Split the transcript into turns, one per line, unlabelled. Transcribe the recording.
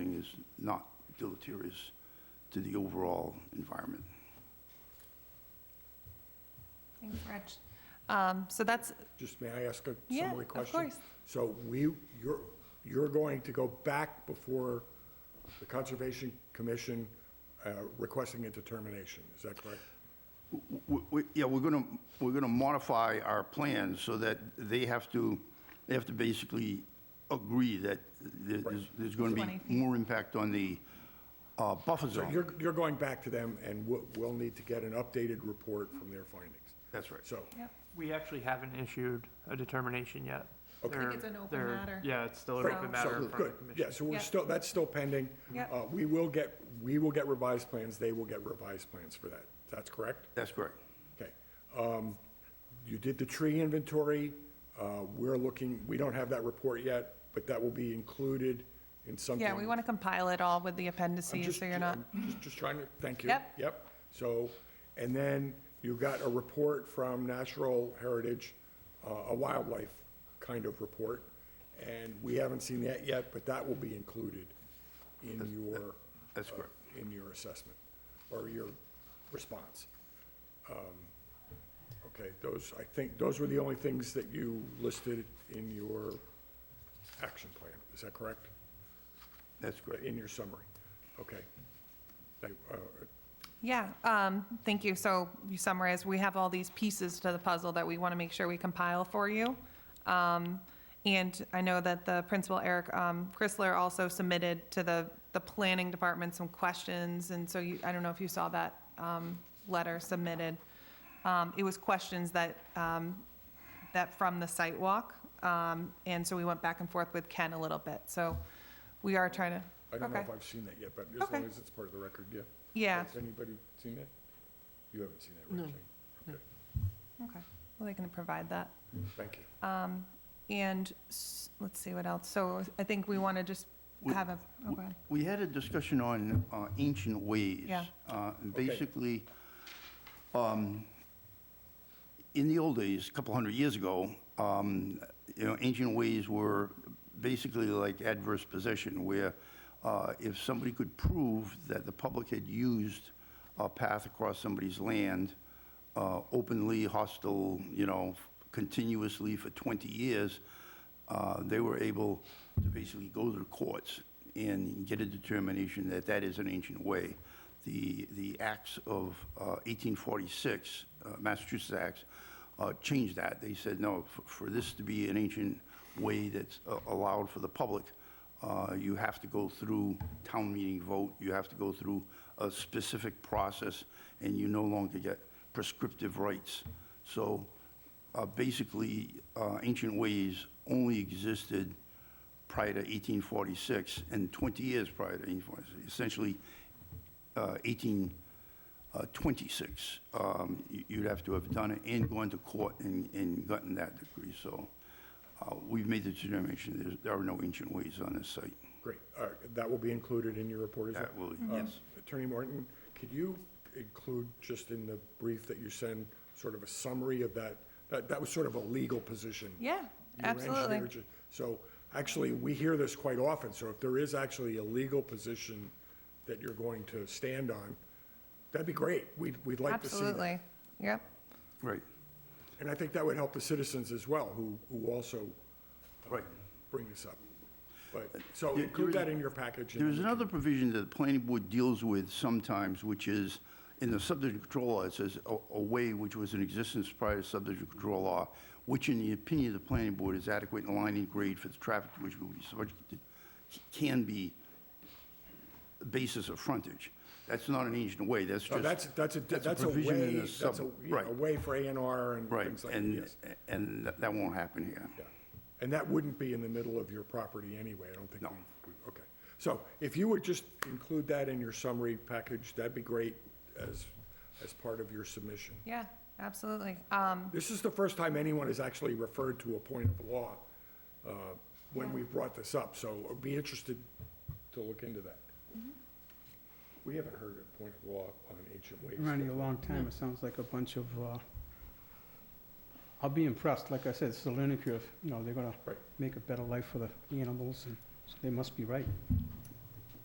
not deleterious to the overall environment.
Thanks, Rich. Um, So that's,
Just may I ask a
Yeah,
summary
of
question?
course.
So we, you're, you're going to go back before the Conservation Commission uh, requesting a determination, is that correct?
W- w- Yeah, we're going to, we're going to modify our plans so that they have to, they have to basically agree that there- there's, there's going to
20
be
feet.
more impact on the uh, buffer
So
zone.
you're, you're going back to them, and we'll, we'll need to get an updated report from their findings.
That's right.
So,
We actually haven't issued a determination yet.
Okay. I
think
They're-
it's an open
they're-
matter.
Yeah, it's still an
Right.
open
So,
matter in front of
good,
the
yeah,
commission.
so we're
Yeah.
still, that's still pending.
Yeah.
Uh, We will get, we will get revised plans, they will get revised plans for that, that's correct?
That's correct.
Okay. Um, You did the tree inventory. Uh, We're looking, we don't have that report yet, but that will be included in something.
yeah, we want to compile it all with the
I'm
appendices,
just-
so you're not,
I'm just- Just trying to, thank you.
Yep.
Yep. So, and then you got a report from Natural Heritage, uh, a wildlife kind of report. And we haven't seen that yet, but that will be included in your.
that's correct.
uh, In your assessment or your response. Um, Okay, those, I think, those were the only things that you listed in your action plan, is that correct?
That's correct.
In your summary, okay. They, uh,
yeah, um, thank you. So you summarize, we have all these pieces to the puzzle that we want to make sure we compile for you. Um, And I know that the principal, Eric um, Chrysler, also submitted to the, the planning department some questions, and so you, I don't know if you saw that um, letter submitted. Um, It was questions that um, that from the site walk, um, and so we went back and forth with Ken a little bit, so we are trying to.
I don't know if
Okay.
I've seen that yet, but as
Okay.
long as it's part of the record, yeah.
Yeah,
Has anybody seen that? You haven't seen that, right? No. Okay,
okay, well, they can provide that.
thank you.
Um, And, s- let's see what else, so I think we want to just
We-
have a, oh,
we-
okay,
We had a discussion on uh, ancient ways.
Yeah.
Uh, and Basically, um, in the old days, a couple hundred years ago, um, you know, ancient ways were basically like adverse possession, where uh, if somebody could prove that the public had used a path across somebody's land uh, openly, hostile, you know, continuously for 20 years, uh, they were able to basically go to the courts and get a determination that that is an ancient way. The, the acts of uh, 1846, uh, Massachusetts Acts, uh, changed that. They said, no, f- for this to be an ancient way that's uh, allowed for the public, uh, you have to go through town meeting vote, you have to go through a specific process, and you no longer get prescriptive rights. So uh, basically, uh, ancient ways only existed prior to 1846 and 20 years prior to 1846, essentially uh, 1826. um, you- You'd have to have done it and gone to court and and gotten that degree. So uh, we've made the determination, there's- there are no ancient ways on this site.
Great, all right, that will be included in your report as well?
That will,
Um,
yes.
Attorney Morton, could you include, just in the brief that you send, sort of a summary of that? That, that was sort of a legal position.
yeah,
You were
absolutely.
engineer, ju- So, actually, we hear this quite often, so if there is actually a legal position that you're going to stand on, that'd be great. We'd, we'd like to see that.
Absolutely, yep,
Right,
And I think that would help the citizens as well, who, who also
right.
bring this up. But, so
There-
include
there is-
that in your package. and
There's
we can-
another provision that the planning board deals with sometimes, which is, in the subdivision control law, it says, "A a way which was in existence prior to subdivision control law, which in the opinion of the planning board is adequate and aligning grade for the traffic to which will be subjected, can be the basis of frontage." That's not an ancient way, that's
So
just.
that's, that's a, that's a
provision in
way,
the
that's
sub-
a, yeah,
Right,
a way for A and R and things
right,
like that,
and,
yes.
and that- that won't happen here.
Yeah. And that wouldn't be in the middle of your property anyway, I don't think.
No.
we- we- Okay. So if you would just include that in your summary package, that'd be great as, as part of your submission.
yeah, absolutely. Um,
This is the first time anyone has actually referred to a point of law uh, when we brought this up, so I'd be interested to look into that. We haven't heard of point of law on ancient ways.
Around here a long time, it sounds like a bunch of, uh, I'll be impressed, like I said, it's a learning curve, you know, they're gonna
Right.
make a better life for the animals, and so they must be right.